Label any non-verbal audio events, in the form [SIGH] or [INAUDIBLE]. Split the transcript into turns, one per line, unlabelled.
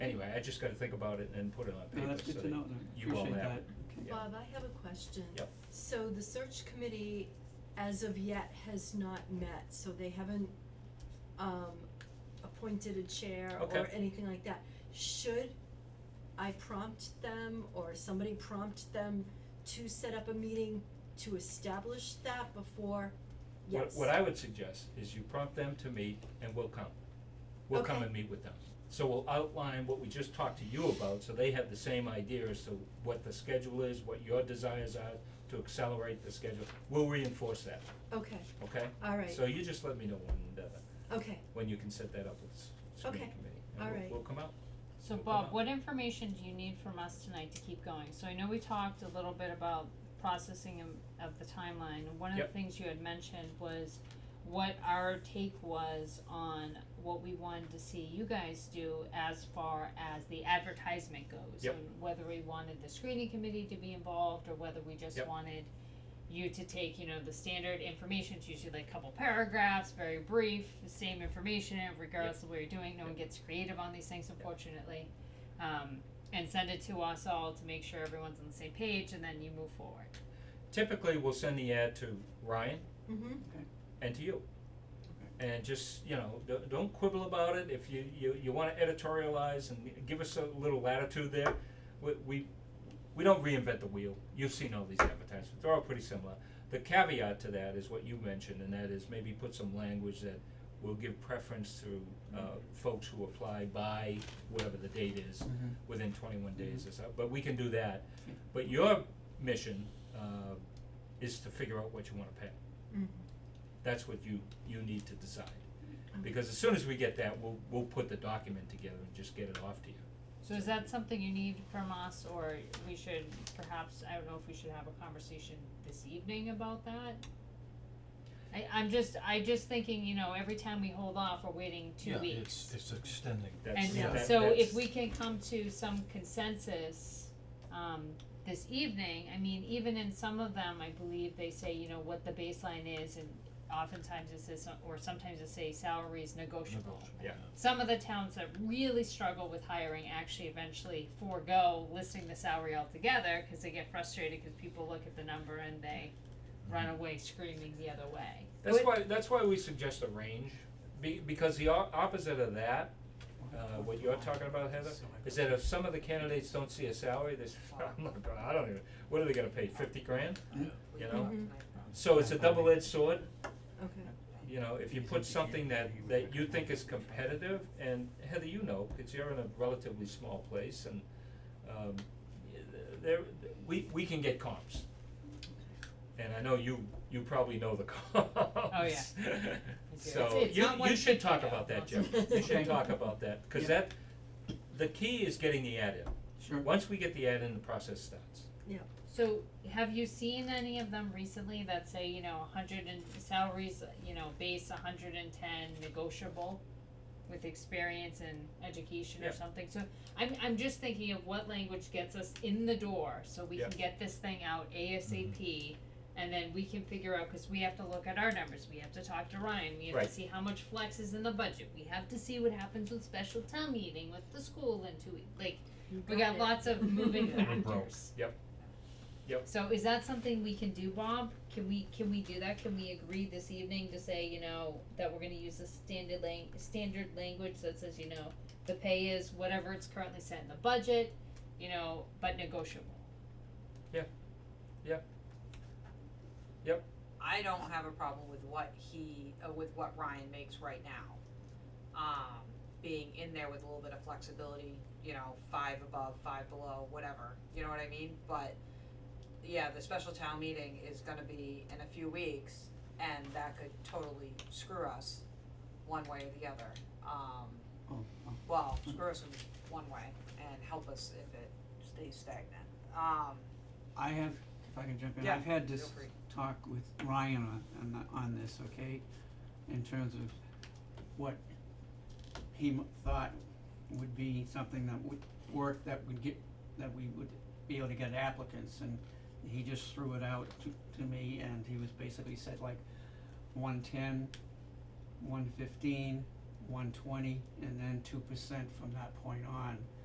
I just gotta think about it and then put it on
No,
paper,
that's
so
good to
that
know, and I
you all
appreciate
have
that.
it. Yeah.
Bob, I have a question.
Yep.
So the search committee, as of yet, has not met, so they haven't, um, appointed a chair or
Okay.
anything like that. Should I prompt them or somebody prompt them to set up a meeting to establish that before?
What,
Yes.
what I would suggest is you prompt them to meet and we'll come. We'll come
Okay.
and meet with them. So we'll outline what we just talked to you about, so they have the same idea as to what the schedule is, what your desires are to accelerate the schedule. We'll reinforce that,
Okay,
okay?
all right,
So you just let me know when, uh,
okay,
when you can set that up with s- screening
Okay.
committee.
All
And
right.
we'll, we'll come out.
So
We'll come
Bob,
out.
what information do you need from us tonight to keep going? So I know we talked a little bit about processing of, of the timeline, and one of
Yep.
the things you had mentioned was what our take was on what we wanted to see you guys do as far as the advertisement goes.
Yep.
And whether we wanted the screening committee to be involved, or whether we just
Yep.
wanted you to take, you know, the standard information, it's usually like a couple paragraphs, very brief, the same information, regardless of what you're doing, no one gets creative on these things unfortunately. Um, and send it to us all to make sure everyone's on the same page and then you move forward.
Typically, we'll send the ad to Ryan
mm-hmm,
and to you. And just, you know, don't, don't quibble about it, if you, you, you wanna editorialize and give us a little latitude there, we, we, we don't reinvent the wheel, you've seen all these advertisements, they're all pretty similar. The caveat to that is what you mentioned, and that is maybe put some language that will give preference to, uh, folks who apply by whatever the date is,
Mhm.
within twenty-one days or so, but we can do that. But your mission, uh, is to figure out what you wanna pay
mm,
that's what you, you need to decide. Because as soon as we get that, we'll, we'll put the document together and just get it off to you.
So is that something you need from us or we should perhaps, I don't know if we should have a conversation this evening about that? I, I'm just, I just thinking, you know, every time we hold off, we're waiting two weeks.
Yeah, it's, it's extending.
That's,
And
Yeah.
that-
so if
that's-
we can come to some consensus, um, this evening, I mean, even in some of them, I believe they say, you know, what the baseline is and oftentimes it says, or sometimes it say salary is negotiable.
Yeah.
Some of the towns that really struggle with hiring actually eventually forego listing the salary altogether, cause they get frustrated, cause people look at the number and they run away screaming the other way.
Mm-hmm. That's why, that's why we suggest a range, be, because the o- opposite of that, uh, what you're talking about, Heather, is that if some of the candidates don't see a salary, they say, [LAUGHS] I'm not gonna, I don't even, what are they gonna pay, fifty grand? You
Mm-hmm.
know,
Mhm.
so
uh,
it's a double-edged sword,
okay,
you know, if you put something that, that you think is competitive, and Heather, you know, cause you're in a relatively small place and, um, y- there, we, we can get comps. And I know you, you probably know the [LAUGHS] comps. Oh,
yeah.
So,
It's- it's
you,
not
you should
150
talk
though,
about that, Jim,
that's-
you should
Okay.
talk about that, cause
Yeah.
that, the key is getting the ad in.
Sure.
Once we get the ad in, the process starts.
So have you seen any of them recently that say, you know, hundred and salaries, you know, base hundred and ten negotiable with experience and education
Yeah.
or something? So I'm I'm just thinking of what language gets us in the door so we can get this thing out ASAP. And then we can figure out, cause we have to look at our numbers, we have to talk to Ryan, we have
Right.
to see how much flex is in the budget, we have to see what happens with special town meeting with the school in two weeks, like,
you got
we got
it. [LAUGHS]
lots of moving
Yeah. We're
factors.
broke.
Yep. Yep.
So is that something we can do, Bob? Can we, can we do that? Can we agree this evening to say, you know, that we're gonna use the standard lang- standard language that says, you know, the pay is whatever it's currently set in the budget, you know, but negotiable?
I don't have a problem with what he, uh, with what Ryan makes right now. Um, being in there with a little bit of flexibility, you know, five above, five below, whatever, you know what I mean? But, yeah, the special town meeting is gonna be in a few weeks, and that could totally screw us one way or the other. Um,
Oh, oh,
well, screw us in one way and help us if it stays stagnant. Um,
I have, if I can jump in,
Yeah,
I've had
feel
this
free.
talk with Ryan on, on, the- on this, okay? In terms of what he m- thought would be something that would work, that would get, that we would be able to get applicants, and he just threw it out to, to me, and he was basically said like one-ten, one-fifteen, one-twenty, and then two percent from that point on.